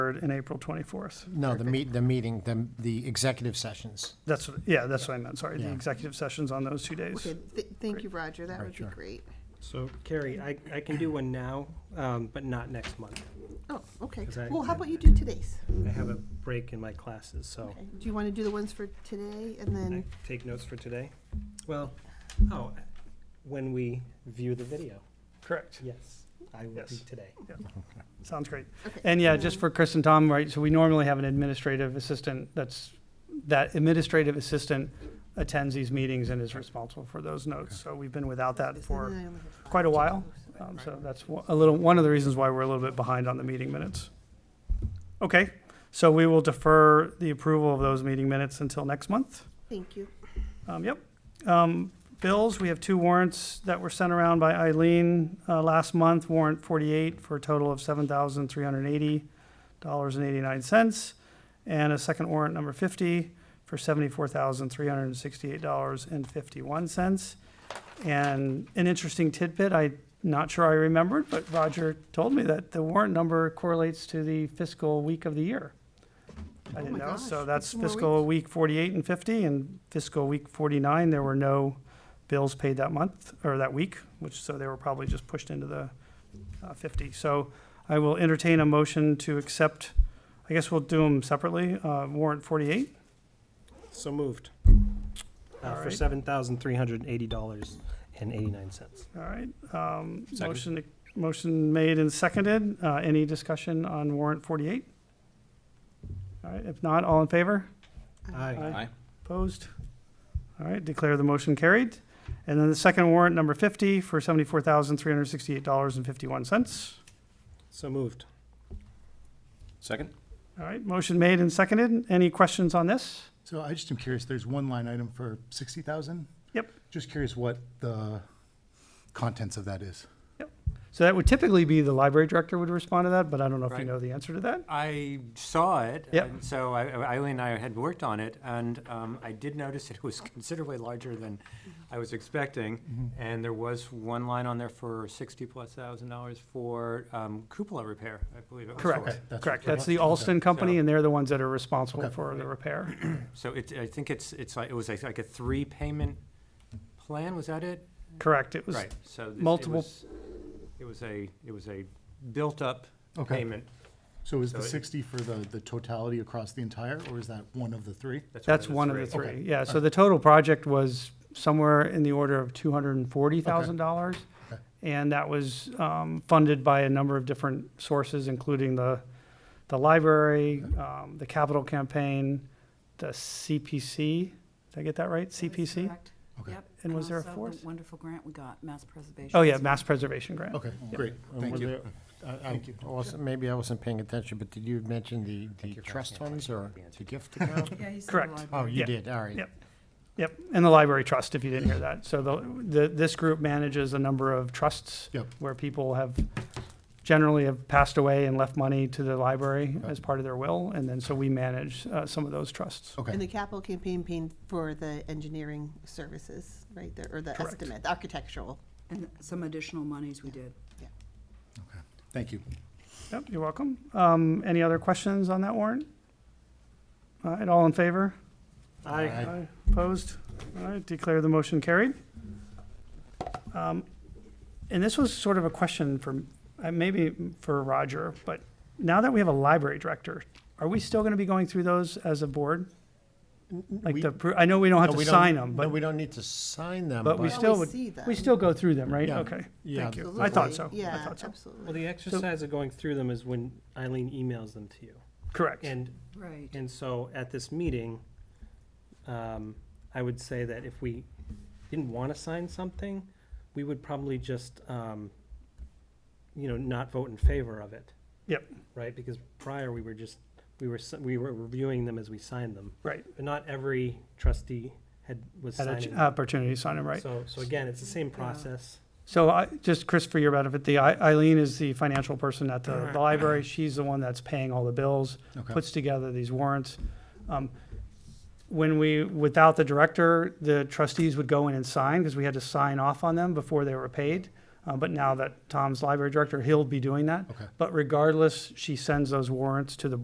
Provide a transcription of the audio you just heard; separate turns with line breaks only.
23rd and April 24th.
No, the meet, the meeting, the, the executive sessions.
That's, what- yeah, that's what I meant, sorry, the
Yeah.
executive sessions on those two days.
Okay, th- thank you, Roger, that would be
Sure.
great.
So Carrie, I, I can do one now, um, but not next month.
Oh, okay,
'Cause I-
well, how about you do today's?
I have a break in my classes, so
Okay. Do you want to do the ones for today and
I
then,
take notes for today. Well, oh, when we view the video.
Correct.
Yes, I will do
Yes.
today.
Sounds great.
okay.
And yeah, just for Chris and Tom, right, so we normally have an administrative assistant that's, that administrative assistant attends these meetings and is responsible for those notes. So we've been without that
This,
uh, for,
and then I only have five
quite a
to
while.
do, so-
um, so that's one- a little, one of the reasons why we're a little bit behind on the meeting minutes. Okay, so we will defer the approval of those meeting minutes until next month.
Thank you.
Um, yep. Um, bills, we have two warrants that were sent around by Eileen, uh, last month, warrant forty-eight for a total of seven thousand three hundred and eighty dollars and eighty-nine cents. And a second warrant number fifty for seventy-four thousand three hundred and sixty-eight dollars and fifty-one cents. And an interesting tidbit, I'm not sure I remembered, but Roger told me that the warrant number correlates to the fiscal week of the year. I didn't
Oh my
know,
gosh,
so that's
two more
fiscal week forty-eight and fifty, and fiscal week forty-nine, there were no bills paid that month, or that week, which, so they were probably just pushed into the uh, fifty. So I will entertain a motion to accept, I guess we'll do them separately, uh, warrant forty-eight.
So moved.
All
Uh, for
right.
seven thousand three hundred and eighty dollars and eighty-nine cents.
All right, um,
Second.
motion, motion made and seconded. Uh, any discussion on warrant forty-eight? All right, if not, all in favor?
Aye.
Aye.
Opposed? All right, declare the motion carried. And then the second warrant, number fifty, for seventy-four thousand, three hundred and sixty-eight dollars and fifty-one cents.
So moved.
Second?
All right, motion made and seconded. Any questions on this?
So I just am curious, there's one line item for sixty thousand?
Yep.
Just curious what the contents of that is.
So that would typically be the library director would respond to that, but I don't know if you
Right.
know the answer to that.
I saw it.
Yep.
and Um, So I- I- Eileen and I had worked on it, and um, I did notice it was considerably larger than I was expecting.
Mm-hmm.
And there was one line on there for sixty-plus thousand dollars for um, cupola repair, I believe it was. for.
Correct,
that's
correct.
what it
That's the
was. Okay.
Alston Company,
So-
and they're the ones that are responsible
Okay.
for the repair.
So it, I think it's, it's like, it was like a three-payment plan, was that it?
Correct, it was,
Right, so. this- it
multiple-
was- It was a, it was a built-up
Okay.
payment.
So is
So
the
it-
sixty for the, the totality across the entire, or is that one of the three?
that's one of the
Okay.
three. Yeah, so the total project was somewhere in the order of two hundred and forty thousand dollars.
Okay.
And that was, um, funded by a number of different sources, including the, the library, um, the capital campaign, the CPC. Did I get that right? CPC?
Correct.
Okay.
Yep.
And was there a
also the
fourth?
Wonderful grant we got, mass preservation.
Oh, yeah, mass preservation grant.
Okay, great, thank you.
Thank you.
Awesome.
Also, maybe I wasn't paying attention, but did you mention the, the trust funds or the gift account?
Yeah, he's.
Correct.
Oh,
Yeah.
you did, all right.
Yep. Yep, and the library trust, if you didn't hear that. So the, the, this group manages a number of trusts.
Yep.
Where people have, generally have passed away and left money to the library as part of their will, and then so we manage, uh, some of those trusts.
Okay.
And the capital campaign paid for the engineering services, right, there, or the
Correct.
estimate, the architectural.
And some additional monies we did.
Thank you.
Yep, you're welcome. Um, any other questions on that warrant? All right, all in favor?
Aye.
Aye. Opposed? All right, declare the motion carried. Um, And this was sort of a question for, uh, maybe for Roger, but now that we have a library director, are we still going to be going through those as a board? Like
we-
the, pro- I know we don't have
No,
to
we don't-
sign them,
No,
but
we don't need to sign them,
But we
but,
still
Always
would-
see them.
we still go through them, right?
Yeah.
Okay,
Yeah,
thank you.
Absolutely.
I thought so. I
Yeah,
thought so.
Well,
absolutely.
the exercise of going through them is when Eileen emails them to you.
Correct.
And
Right.
And so at this meeting, um, I would say that if we didn't want to sign something, we would probably just, um, you know, not vote in favor of it.
Yep.
Right, because prior, we were just, we were, s- we were reviewing them as we signed them.
Right.
But not every trustee had, was
Had
signing.
an opportunity to sign them, right?
So, so again, it's the same process.
So I, just Chris, for your benefit, the Ei- Eileen is the financial person at the the library. She's the one that's paying all the bills,
Okay.
puts together these warrants. Um, When we, without the director, the trustees would go in and sign because we had to sign off on them before they were paid. Uh, But now that Tom's library director, he'll be doing that.
Okay.
But regardless, she sends those warrants to the